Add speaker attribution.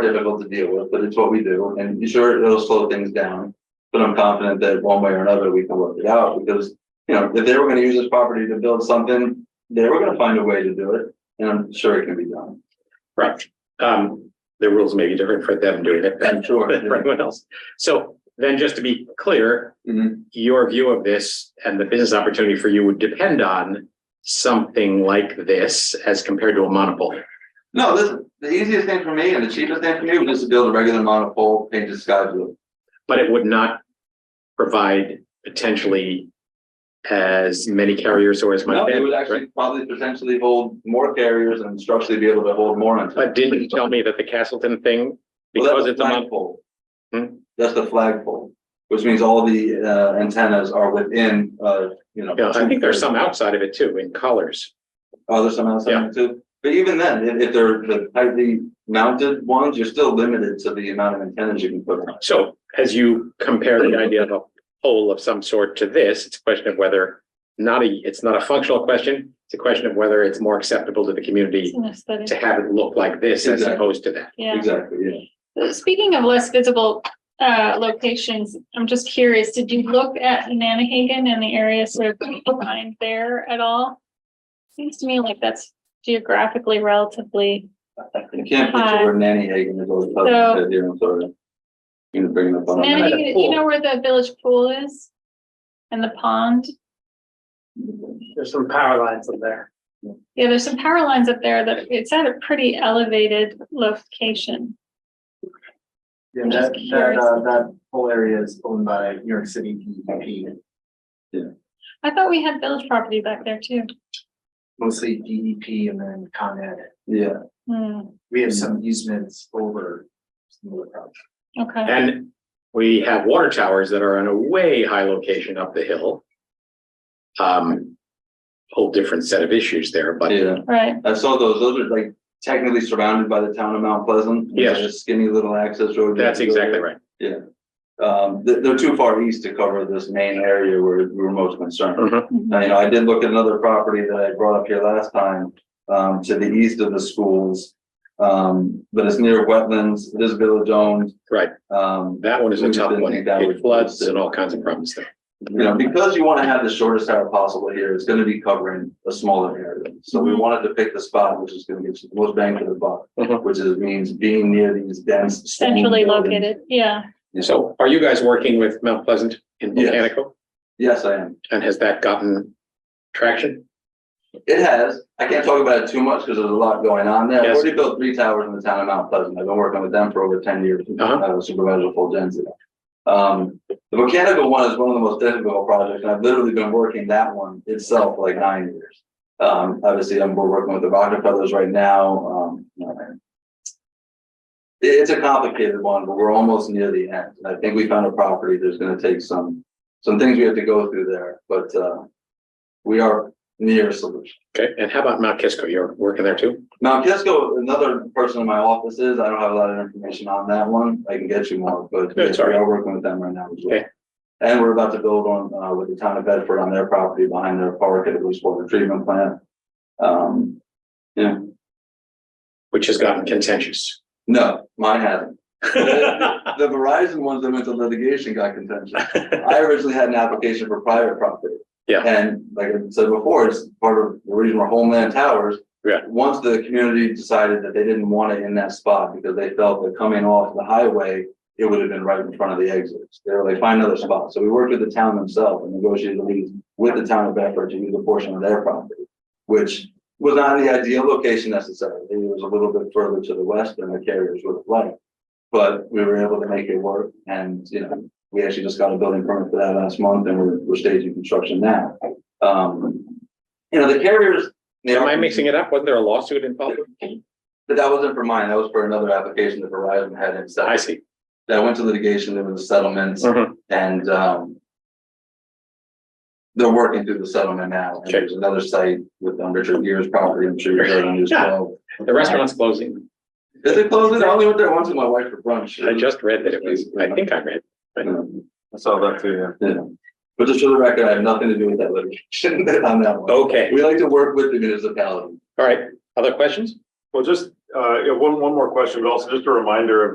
Speaker 1: difficult to deal with, but it's what we do, and sure, it'll slow things down. But I'm confident that one way or another, we can work it out, because, you know, if they were gonna use this property to build something, they were gonna find a way to do it, and I'm sure it can be done.
Speaker 2: Right. Um, the rules may be different for them doing it than
Speaker 1: I'm sure.
Speaker 2: than for anyone else. So then just to be clear,
Speaker 1: Mhm.
Speaker 2: your view of this and the business opportunity for you would depend on something like this as compared to a monopole.
Speaker 1: No, this, the easiest thing for me and the cheapest thing for me was just to build a regular monopole, paint the sky blue.
Speaker 2: But it would not provide potentially as many carriers or as much.
Speaker 1: No, it would
Speaker 2: bandwidth,
Speaker 1: actually
Speaker 2: right?
Speaker 1: probably potentially hold more carriers and structurally be able to hold more. onto it.
Speaker 2: But didn't you tell me that the Castleton thing,
Speaker 1: Well, that's
Speaker 2: because
Speaker 1: the
Speaker 2: it's a monopole,
Speaker 1: flagpole.
Speaker 2: Hmm?
Speaker 1: That's the flagpole, which means all the uh antennas are within, uh, you know.
Speaker 2: yeah, I think there's some
Speaker 1: out.
Speaker 2: outside of it too in colors.
Speaker 1: Oh, there's some
Speaker 2: Yeah.
Speaker 1: outside too, but even then, if if they're the tightly mounted ones, you're still limited to the amount of antennas you can put on.
Speaker 2: So as you compare the idea of a pole of some sort to this, it's a question of whether not a, it's not a functional question. It's a question of whether it's more acceptable to the community
Speaker 3: It's an
Speaker 2: to
Speaker 3: aesthetic,
Speaker 2: have it look like this as
Speaker 1: Exactly.
Speaker 2: opposed to that.
Speaker 3: yeah. Uh,
Speaker 1: Exactly, yeah.
Speaker 3: Speaking of less visible uh locations, I'm just curious, did you look at Nanahagan and the area sort of behind there at all? Seems to me like that's geographically relatively,
Speaker 1: You can't picture
Speaker 3: Hi.
Speaker 1: where Nanny Hagan is always
Speaker 3: So-
Speaker 1: posted here, I'm sorry. You know, bringing up on. a map.
Speaker 3: Nanahagan, you know where the village pool is? And the pond?
Speaker 4: There's some power lines up there.
Speaker 3: Yeah, there's some power lines up there that it's at a pretty elevated location.
Speaker 4: Yeah,
Speaker 3: I'm just
Speaker 4: that, that, uh,
Speaker 3: curious.
Speaker 4: that whole area is owned by New York City E DEP,
Speaker 3: I thought we had village property back there too.
Speaker 4: mostly DEP and then Con Ed.
Speaker 1: Yeah,
Speaker 3: Hmm,
Speaker 4: We have some easements over some of the projects.
Speaker 3: okay.
Speaker 2: And we have water towers that are on a way high location up the hill. Um, whole different set of issues there, but
Speaker 1: yeah,
Speaker 3: Right,
Speaker 1: I saw those, those are like technically surrounded by the town of Mount Pleasant. It's
Speaker 2: Yes.
Speaker 1: like a Skinny little access road. you have
Speaker 2: that's
Speaker 1: to go
Speaker 2: exactly
Speaker 1: there.
Speaker 2: right.
Speaker 1: Um, they're, they're too far east to cover this main area where we were most concerned.
Speaker 2: Mhm.
Speaker 1: Now, you know, I did look at another property that I brought up here last time, um, to the east of the schools. Um, but it's near wetlands, it is village owned.
Speaker 2: Right.
Speaker 1: Um,
Speaker 2: That one is a
Speaker 1: We
Speaker 2: tough
Speaker 1: didn't
Speaker 2: one.
Speaker 1: think that
Speaker 2: It
Speaker 1: would-
Speaker 2: floods and all kinds of problems there.
Speaker 1: you know, because you want to have the shortest hour possible here, it's going to be covering a smaller area. So we
Speaker 3: Mhm.
Speaker 1: wanted to pick the spot which is going to get you the most bang for the buck,
Speaker 2: Mhm.
Speaker 1: which is means being near these dense. stone
Speaker 3: centrally
Speaker 1: buildings.
Speaker 3: located, yeah.
Speaker 2: So are you guys working with Mount Pleasant in
Speaker 1: Yes.
Speaker 2: Botanical?
Speaker 1: Yes, I am.
Speaker 2: And has that gotten traction?
Speaker 1: It has. I can't talk about it too much because there's a lot going on there. I've
Speaker 2: Yes.
Speaker 1: already built three towers in the town of Mount Pleasant. I've been working with them for over ten years.
Speaker 2: Uh-huh.
Speaker 1: I was supervisor full density. Um, the mechanical one is one of the most difficult projects, and I've literally been working that one itself for like nine years. Um, obviously, I'm, we're working with the Rockefellers right now, um, you know, and it- it's a complicated one, but we're almost near the end. And I think we found a property that's gonna take some, some things we have to go through there, but, uh, we are near a solution.
Speaker 2: Okay, and how about Mount Kisco? You're working there too?
Speaker 1: Now, Kisco, another person in my office is, I don't have a lot of information on that one, I can get you more, but
Speaker 2: No, it's all
Speaker 1: we
Speaker 2: right.
Speaker 1: are working with them right now as well.
Speaker 2: Okay.
Speaker 1: And we're about to build on, uh, with the town of Bedford on their property behind their park at a wastewater treatment plant. Um, yeah,
Speaker 2: Which has gotten contentious.
Speaker 1: no, mine hasn't.
Speaker 2: Right,
Speaker 1: The Verizon ones that went to litigation got contentious. I originally had an application for private property.
Speaker 2: Yeah.
Speaker 1: And like I said before, it's part of the reason we're homeland towers.
Speaker 2: Yeah.
Speaker 1: Once the community decided that they didn't want it in that spot because they felt that coming off the highway, it would have been right in front of the exits. They were like, find another spot. So we worked with the town themselves and negotiated a lease with the town of Bedford to use a portion of their property, which was not the ideal location necessarily. It was a little bit further to the west than the carriers would have liked. But we were able to make it work and, you know, we actually just got a building permit for that last month and we're, we're staging construction now. Um, you know, the carriers. they
Speaker 2: Am
Speaker 1: are-
Speaker 2: I mixing it up? Wasn't there a lawsuit involved?
Speaker 1: But that wasn't for mine. That was for another application that Verizon had
Speaker 2: I
Speaker 1: instead.
Speaker 2: see.
Speaker 1: That went to litigation. There was a settlement
Speaker 2: Mhm.
Speaker 1: and, um, they're working through the settlement now. And
Speaker 2: Okay.
Speaker 1: There's another site with um, Richard Gere's property. I'm sure you're heard on news
Speaker 2: Yeah.
Speaker 1: well.
Speaker 2: The restaurant's closing.
Speaker 1: Did they close it? I only went there once with my wife for brunch.
Speaker 2: I just read that it was, I think I read.
Speaker 1: I saw that too, yeah. But just for the record, I have nothing to do with that litigation on that one.
Speaker 2: Okay,
Speaker 1: We like to work with the municipality.
Speaker 2: all right. Other questions?
Speaker 5: Well, just Uh, yeah, one, one more question, but also just a reminder of